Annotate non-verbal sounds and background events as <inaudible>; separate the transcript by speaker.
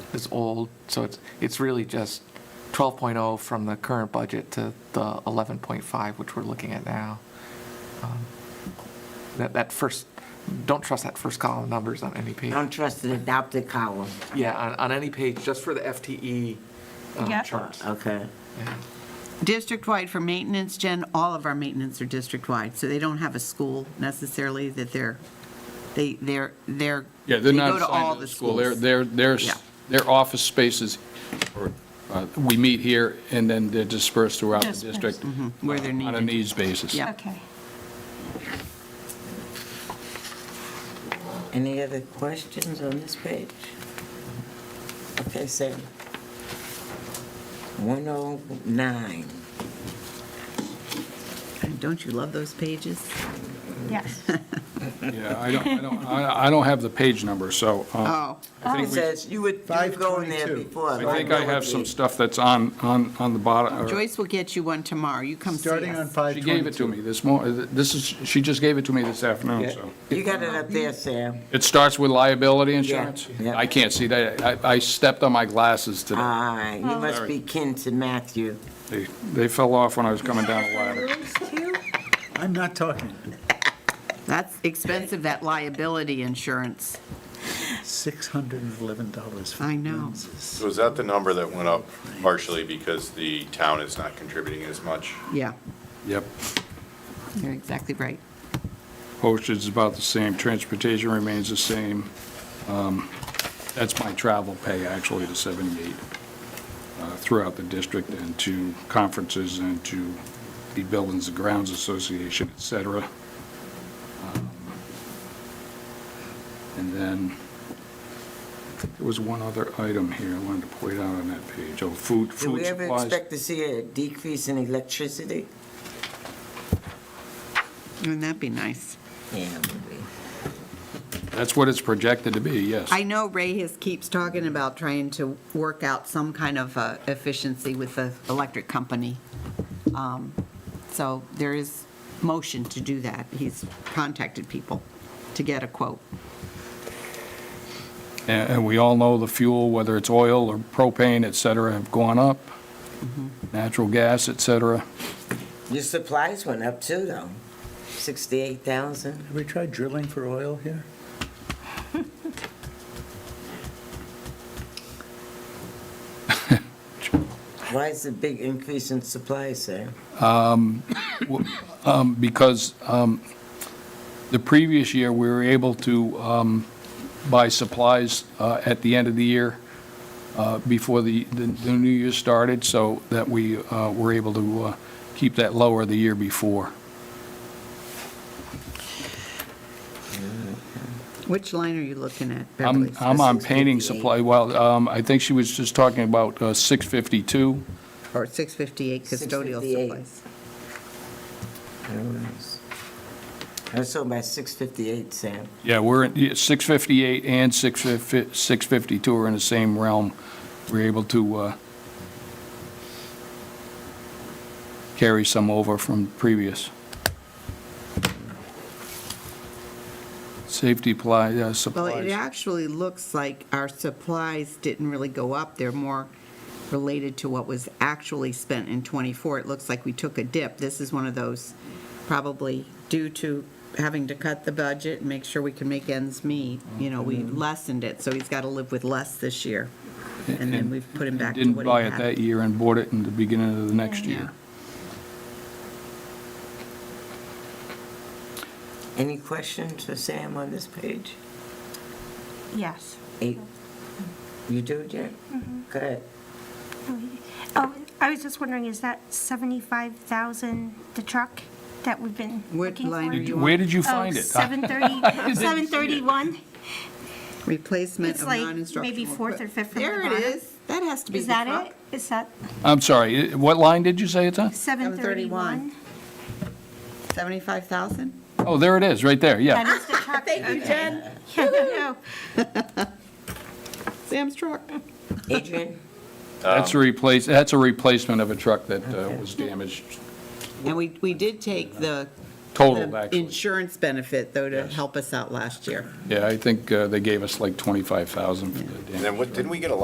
Speaker 1: is old, so it's, it's really just 12.0 from the current budget to the 11.5, which we're looking at now. Um, That, that first, don't trust that first column of numbers on any page.
Speaker 2: Don't trust the adopted column.
Speaker 1: Yeah, on, on any page, just for the FTE um,
Speaker 3: Yeah.
Speaker 1: charts.
Speaker 2: Okay.
Speaker 1: Yeah.
Speaker 4: District-wide for maintenance, Jen, all of our maintenance are district-wide, so they don't have a school necessarily that they're, they, they're, they're.
Speaker 5: Yeah, they're
Speaker 4: they
Speaker 5: not
Speaker 4: go to all
Speaker 5: assigned to the
Speaker 4: the
Speaker 5: school. Their,
Speaker 4: schools.
Speaker 5: their, their,
Speaker 4: Yeah.
Speaker 5: their office spaces, or, uh, we meet here, and then they're dispersed throughout the
Speaker 3: Dispersed.
Speaker 5: district.
Speaker 4: Mm-hmm.
Speaker 5: uh,
Speaker 4: where they're
Speaker 5: On a
Speaker 4: needed.
Speaker 5: needs basis.
Speaker 4: Yeah.
Speaker 3: Okay.
Speaker 2: Any other questions on this page? Okay, oh Sam. 109.
Speaker 4: Don't you love those pages? <laughs>
Speaker 3: Yes.
Speaker 5: Yeah, I don't, I don't, I I don't have the page number, so uh,
Speaker 4: Oh,
Speaker 2: It
Speaker 5: I think we,
Speaker 2: says, you would you would go in there
Speaker 6: 522.
Speaker 2: before.
Speaker 4: Uh,
Speaker 5: I think I have some stuff that's on, on, on the bottom. or-
Speaker 4: Joyce will get you one tomorrow, you come see us.
Speaker 6: Starting on 522.
Speaker 5: She gave it to me this mor, this is, she just gave it to me this afternoon, so.
Speaker 2: You got it up there, Sam.
Speaker 5: It starts with liability insurance?
Speaker 2: yeah.
Speaker 5: I can't see that. I, I stepped on my glasses
Speaker 4: Ah.
Speaker 5: today.
Speaker 2: All right, you must be kin to Matthew.
Speaker 5: They, they fell off when I was coming down the ladder.
Speaker 6: I'm not talking.
Speaker 4: That's expensive, that liability insurance.
Speaker 6: $611. for
Speaker 4: I know.
Speaker 6: lenses.
Speaker 7: So is that the number that went up partially because the town is not contributing as much?
Speaker 4: Yeah,
Speaker 5: Yep.
Speaker 4: you're exactly right.
Speaker 5: Postage is about the same, transportation remains the same. Um, That's my travel pay, actually, to 78, uh, throughout the district and to conferences and to the Buildings and Grounds Association, et cetera. Um, And then, I think there was one other item here I wanted to point out on that page. Oh, food,
Speaker 2: Do we
Speaker 5: food
Speaker 2: ever
Speaker 5: supplies.
Speaker 2: expect to see a decrease in electricity?
Speaker 4: Wouldn't that be nice?
Speaker 2: Yeah, maybe.
Speaker 5: That's what it's projected to be, yes.
Speaker 4: I know Ray has, keeps talking about trying to work out some kind of uh, efficiency with the electric company. Um, So there is motion to do that. He's contacted people to get a quote.
Speaker 5: And and we all know the fuel, whether it's oil or propane, et cetera, have gone up, natural gas, et cetera.
Speaker 2: Your supplies went up too, though. 68,000.
Speaker 6: Have we tried drilling for oil here?
Speaker 2: Why is the big increase in supplies, Sam?
Speaker 5: Um, Because um, the previous year, we were able to um, buy supplies uh, at the end of the year uh, before the, the the new year started, so that we uh, were able to uh, keep that lower the year before.
Speaker 4: Which line are you looking at, Beverly?
Speaker 5: I'm, I'm on painting supply, well, um, I think she was just talking about uh, 652.
Speaker 4: Or 658 custodial
Speaker 2: 658.
Speaker 4: supplies?
Speaker 2: I don't know. I saw about 658, Sam.
Speaker 5: Yeah, we're, in- yeah, 658 and 650 652 are in the same realm. We're able to uh, carry some over from previous. Safety pli- yeah,
Speaker 4: Well, it
Speaker 5: supplies.
Speaker 4: actually looks like our supplies didn't really go up. They're more related to what was actually spent in '24. It looks like we took a dip. This is one of those, probably due to having to cut the budget and make sure we can make ends meet. You know, we
Speaker 5: Mm-hmm.
Speaker 4: lessened it, so he's got to live with less this year. And then we've put him back to
Speaker 5: Didn't
Speaker 4: what
Speaker 5: buy
Speaker 4: he
Speaker 5: it that
Speaker 4: had.
Speaker 5: year and bought it in the beginning of the next
Speaker 4: Yeah.
Speaker 5: year.
Speaker 2: Any questions for Sam on this page?
Speaker 3: Yes.
Speaker 2: Eight. You do, Jen? Go ahead.
Speaker 3: Oh, I was just wondering, is that 75,000, the truck that we've been
Speaker 4: What
Speaker 3: looking
Speaker 4: line
Speaker 3: for?
Speaker 4: are you on?
Speaker 5: Where did you
Speaker 3: Oh,
Speaker 5: find it? <laughs>
Speaker 3: 730, 731?
Speaker 4: Replacement
Speaker 3: It's
Speaker 4: of
Speaker 3: like
Speaker 4: non-instructional.
Speaker 3: maybe fourth or
Speaker 4: equip-
Speaker 3: fifth from the
Speaker 4: There it
Speaker 3: bottom.
Speaker 4: is. That has to be
Speaker 3: Is
Speaker 4: the
Speaker 3: that
Speaker 4: truck.
Speaker 3: it? Is that
Speaker 5: I'm sorry, i- what line did you say it's on?
Speaker 3: 731?
Speaker 4: 731. 75,000?
Speaker 5: Oh, there it is, right there,
Speaker 3: That
Speaker 5: yeah.
Speaker 3: is the truck. Thank you,
Speaker 4: Jen.
Speaker 3: Yeah, no,
Speaker 4: <laughs> Sam's truck.
Speaker 2: Adrian?
Speaker 5: That's a replace, that's a replacement of a truck that uh, was damaged,
Speaker 4: And we, we did take the
Speaker 5: totaled,
Speaker 4: the
Speaker 5: actually.
Speaker 4: insurance benefit, though, to
Speaker 5: Yes.
Speaker 4: help us out last year.
Speaker 5: Yeah, I think uh, they gave us like 25,000 for the damage.
Speaker 7: And then what, didn't we get a